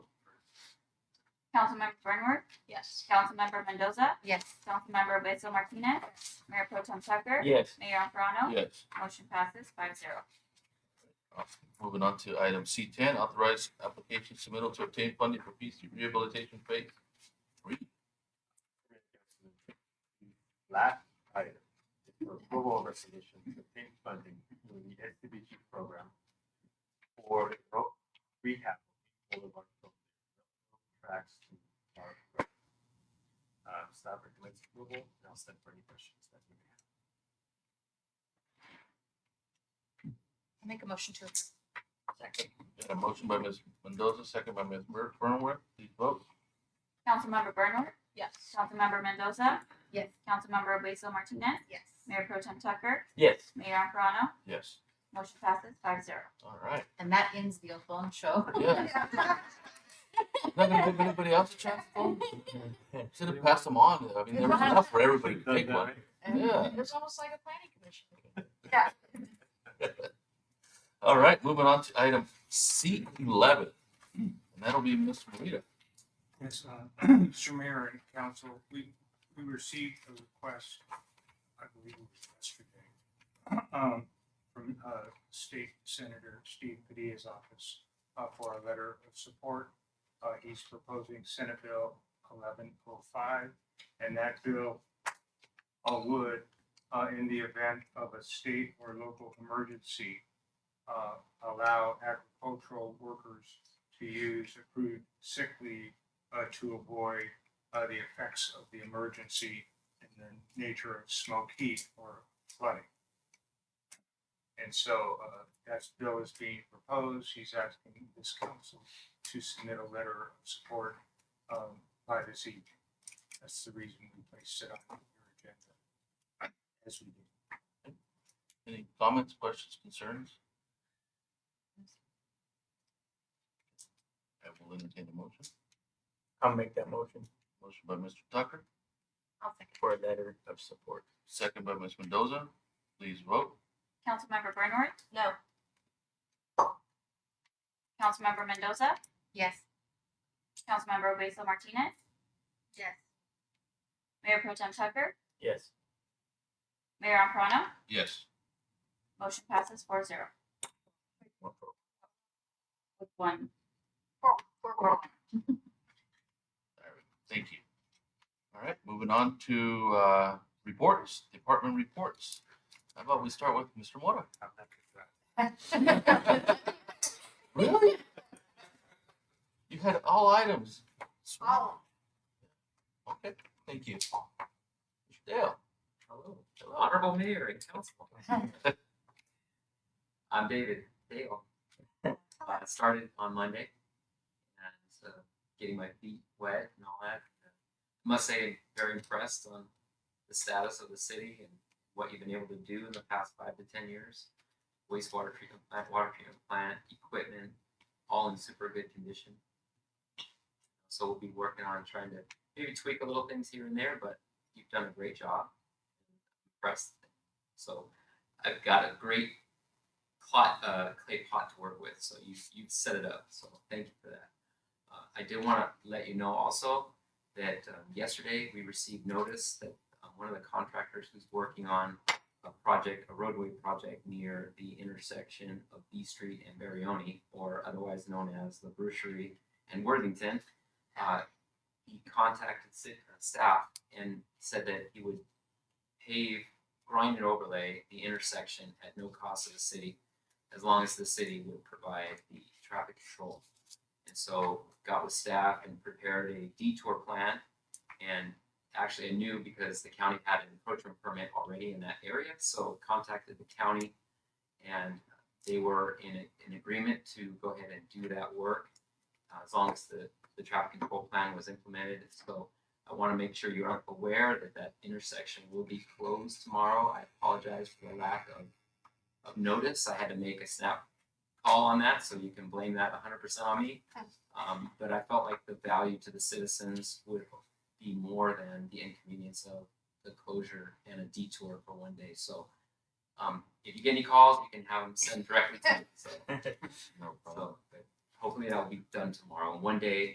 Councilmember Bernworth, Yes. Councilmember Mendoza, Yes. Councilmember Beto Martinez, Mayor Pro Tem Tucker, Yes. Mayor Alferano. Yes. Motion passes five zero. Moving on to item C ten, authorize application submittal to obtain funding for PC rehabilitation phase three. Last item, is for approval of resolution to obtain funding through the SDBG program for ro- rehab of Boulevard from tracks to our road. Uh, staff recommends approval, and I'll stand for any questions that you may have. I make a motion to approve. Got a motion by Ms. Mendoza, second by Ms. Ber- Burnworth, please vote. Councilmember Bernworth, Yes. Councilmember Mendoza, Yes. Councilmember Beto Martinez, Yes. Mayor Pro Tem Tucker, Yes. Mayor Alferano. Yes, Motion passes five zero. all right, And that ends the Othon show. yeah, not gonna give anybody else a chance, to vote? should have passed them on, I mean, there was enough for everybody to take one. Yeah. It's almost like a planning commission meeting. All right, moving on to item C eleven, and that'll be Ms. Marita. Yes, uh, Mr. Mayor and Council, we, we received a request, I believe it was yesterday, um, from uh, State Senator Steve Padilla's office uh, for a letter of support. Uh, He's proposing Senate Bill eleven oh five, and that bill uh, would, uh, in the event of a state or local emergency, uh, allow agricultural workers to use accrued sick leave uh, to avoid uh, the effects of the emergency in the nature of smoke, heat, or flooding. And so uh, that bill is being proposed. He's asking this council to submit a letter of support um, by this evening. That's the reason we placed it on your agenda. As we did. Any comments, questions, concerns? I will entertain a motion. I'll make that motion Motion by Mr. Tucker, I'll second. for a letter of support. second by Ms. Mendoza. Please vote. Councilmember Bernworth, No. Councilmember Mendoza, Yes. Councilmember Beto Martinez, Yes. Mayor Pro Tem Tucker, Yes. Mayor Alferano. Yes. Motion passes four zero. With one. Thank you. All right, moving on to uh, reports, department reports. How about we start with Mr. Mora? I'm not good for that. Really? You had all items. Okay, thank you. Mr. Dale. Hello, honorable mayor and council. I'm David Dale. I started on Monday and uh, getting my feet wet and all that. Must say, I'm very impressed on the status of the city and what you've been able to do in the past five to ten years. Wastewater treatment plant, water treatment plant, equipment, all in super good condition. So we'll be working on trying to maybe tweak a little things here and there, but you've done a great job press. So I've got a great pot, uh, clay pot to work with. So you you set it up. So thank you for that. Uh, I did want to let you know also that um, yesterday we received notice that um, one of the contractors who's working on a project, a roadway project near the intersection of B Street and Barione, or otherwise known as the Brucherie and Worthington, uh, he contacted sit- uh, staff and said that he would pave, grind and overlay the intersection at no cost to the city, as long as the city would provide the traffic control. And so got with staff and prepared a detour plan and actually I knew because the county had an encroachment permit already in that area, so contacted the county and they were in a- an agreement to go ahead and do that work uh, as long as the, the traffic control plan was implemented. So I want to make sure you are aware that that intersection will be closed tomorrow. I apologize for the lack of, of notice. I had to make a snap call on that, so you can blame that hundred percent on me. Um, but I felt like the value to the citizens would be more than the inconvenience of the closure and a detour for one day. So, um, if you get any calls, you can have them send directly to me. So, No problem. so, but hopefully that will be done tomorrow. One day,